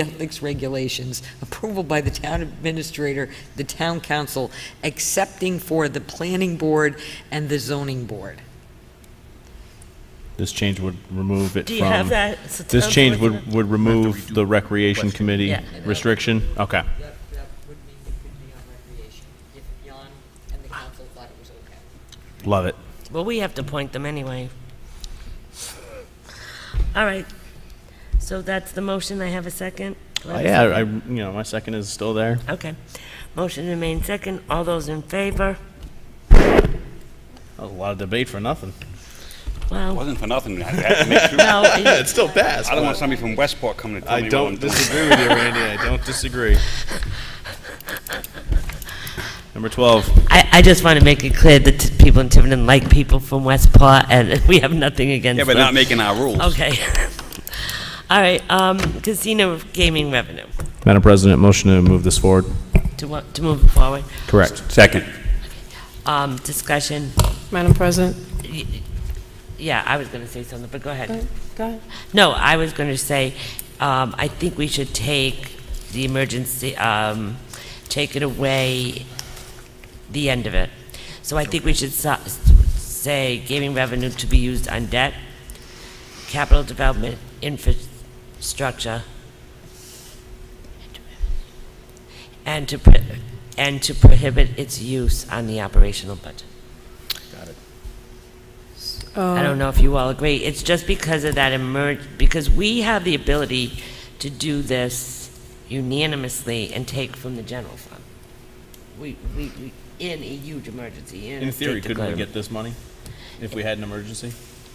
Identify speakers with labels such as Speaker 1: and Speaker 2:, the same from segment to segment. Speaker 1: ethics regulations, approval by the town administrator, the town council, accepting for the planning board and the zoning board.
Speaker 2: This change would remove it
Speaker 3: Do you have
Speaker 2: from,
Speaker 3: that? It's the
Speaker 2: this
Speaker 3: town's
Speaker 2: change
Speaker 3: looking
Speaker 2: would,
Speaker 3: at-
Speaker 2: would remove the Recreation Committee
Speaker 3: Yeah.
Speaker 2: restriction? Okay.
Speaker 1: That, that would mean it could be on recreation, if Jan and the council thought it was okay.
Speaker 2: Love it.
Speaker 3: Well, we have to point them anyway. All right. So that's the motion. I have a second. Do I have a
Speaker 2: Uh, Yeah, I, you know, my second is still there.
Speaker 3: second? Okay. Motion remains second. All those in favor?
Speaker 2: That was a lot of debate for nothing.
Speaker 3: Wow.
Speaker 4: Wasn't for nothing. I had to make sure.
Speaker 3: No, it-
Speaker 2: It's still passed.
Speaker 4: I don't want somebody from Westport coming to tell me
Speaker 2: I
Speaker 4: what I'm
Speaker 2: don't
Speaker 4: doing.
Speaker 2: disagree with you, Randy. I don't disagree. Number 12,
Speaker 3: I, I just want to make it clear that t- people in Tiverton like people from Westport, and we have nothing against
Speaker 4: Yeah,
Speaker 3: them.
Speaker 4: but not making our rules.
Speaker 3: Okay. All right, um, casino gaming revenue,
Speaker 2: Madam President, motion to move this forward.
Speaker 3: to what, to move forward,
Speaker 2: Correct.
Speaker 4: Second.
Speaker 3: um, discussion,
Speaker 5: Madam President?
Speaker 3: Y- y- yeah, I was gonna say something, but go ahead.
Speaker 5: Go ahead.
Speaker 3: No, I was gonna say, um, I think we should take the emergency, um, take it away, the end of it. So I think we should so- say gaming revenue to be used on debt, capital development, infrastructure, and to, pro- and to prohibit its use on the operational budget.
Speaker 5: Uh,
Speaker 3: I
Speaker 5: Oh.
Speaker 3: don't know if you all agree. It's just because of that emerg, because we have the ability to do this unanimously and take from the general fund. We, we, we- in a huge emergency, in a
Speaker 2: In theory,
Speaker 3: state
Speaker 2: couldn't we
Speaker 3: declare.
Speaker 2: get this money if we had an emergency?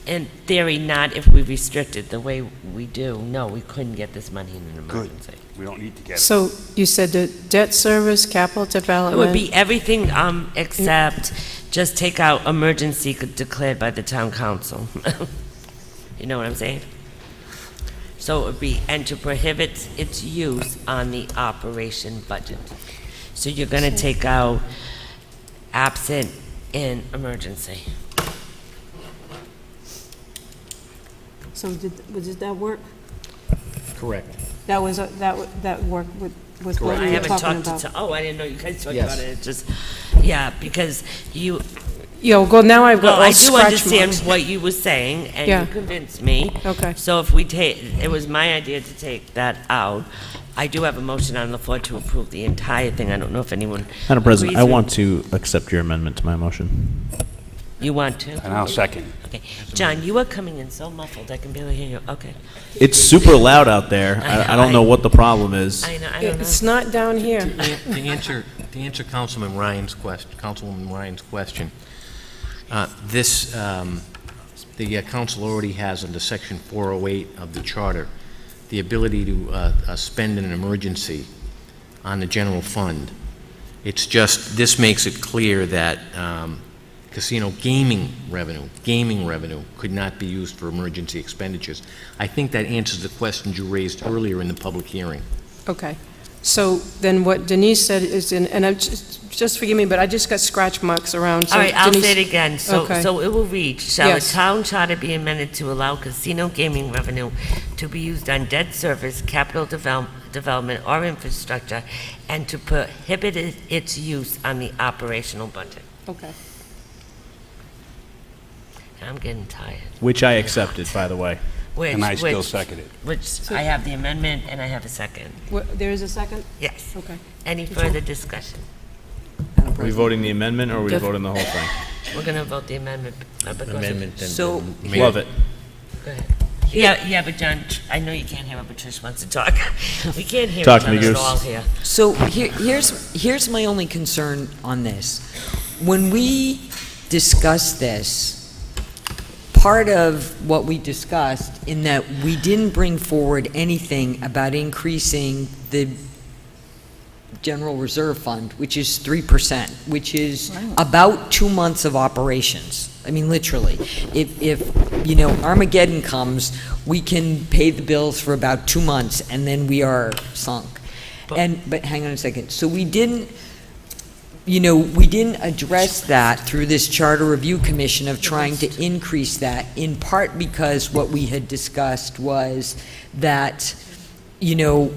Speaker 3: In theory, not if we restricted the way we do. No, we couldn't get this money in an emergency.
Speaker 4: We don't need to get it.
Speaker 5: So you said the debt service, capital
Speaker 3: It would
Speaker 5: development,
Speaker 3: be everything, um, except just take out emergency c- declared by the town council. You know what I'm saying? So it would be, and to prohibit its use on the operation budget. So you're gonna take out absent in emergency.
Speaker 6: So did, was- did that work?
Speaker 7: Correct.
Speaker 6: That was, uh, that, wa- that worked with, with what
Speaker 3: I
Speaker 6: we were
Speaker 3: haven't
Speaker 6: talking
Speaker 3: talked to,
Speaker 6: about?
Speaker 3: to- oh, I didn't know you guys talked
Speaker 7: Yes.
Speaker 3: about it, It's just, yeah, because you,
Speaker 5: yo, go, now I've
Speaker 3: Well,
Speaker 5: got
Speaker 3: I
Speaker 5: all
Speaker 3: do
Speaker 5: scratch
Speaker 3: understand
Speaker 5: marks.
Speaker 3: what you were saying,
Speaker 5: Yeah.
Speaker 3: and you convinced me.
Speaker 5: Okay.
Speaker 3: So if we take, it was my idea to take that out. I do have a motion on the floor to approve the entire thing. I don't know if anyone.
Speaker 2: Madam President, I
Speaker 3: agrees with-
Speaker 2: want to accept your amendment to my motion.
Speaker 3: You want to?
Speaker 4: And I'll second.
Speaker 3: Okay. John, you are coming in so muffled, I can barely hear you. Okay.
Speaker 2: It's super loud out there. I, I don't know what the problem is.
Speaker 3: I know, I don't know.
Speaker 5: It's not down here.
Speaker 7: To an- to answer, to answer Councilman Ryan's question, Councilwoman Ryan's question, uh, this, um, the uh, council already has under section 408 of the charter, the ability to uh, uh, spend in an emergency on the general fund. It's just, this makes it clear that um, casino gaming revenue, gaming revenue could not be used for emergency expenditures. I think that answers the question you raised earlier in the public hearing.
Speaker 5: Okay. So then what Denise said is, in- and I'm, just just forgive me, but I just got scratch marks around. so
Speaker 3: All right, I'll
Speaker 5: Denise-
Speaker 3: say it again. So,
Speaker 5: Okay.
Speaker 3: so it will read, shall the
Speaker 5: Yes.
Speaker 3: town charter be amended to allow casino gaming revenue to be used on debt service, capital develop, development, or infrastructure, and to prohibit it- its use on the operational budget?
Speaker 5: Okay.
Speaker 3: I'm getting tired.
Speaker 2: Which I accepted, by the way.
Speaker 3: Which-
Speaker 4: And I still
Speaker 3: which-
Speaker 4: second it.
Speaker 3: Which, I have the amendment and I have a second.
Speaker 6: Wha- There is a second?
Speaker 3: Yes.
Speaker 5: Oh,
Speaker 6: Okay.
Speaker 3: Any further discussion?
Speaker 2: Are we voting the amendment or are we voting the whole thing?
Speaker 3: We're going to vote the amendment. uh, because-
Speaker 7: Amendment and.
Speaker 1: So-
Speaker 7: Mayor-
Speaker 2: Love it.
Speaker 3: Go ahead. Yeah, yeah, but John, tr- I know you can't hear, but Trish wants to talk. We can't hear each
Speaker 2: Talk to me,
Speaker 3: other at
Speaker 2: Goose.
Speaker 3: all here.
Speaker 1: So here, here's, here's my only concern on this. When we discussed this, part of what we discussed in that we didn't bring forward anything about increasing the general reserve fund, which is 3%, which is about two months of operations. I mean, literally. If, if, you know, Armageddon comes, we can pay the bills for about two months and then we are sunk.
Speaker 3: But-
Speaker 1: And, but hang on a second. So we didn't, you know, we didn't address that through this Charter Review Commission of trying to increase that, in part because what we had discussed was that you know,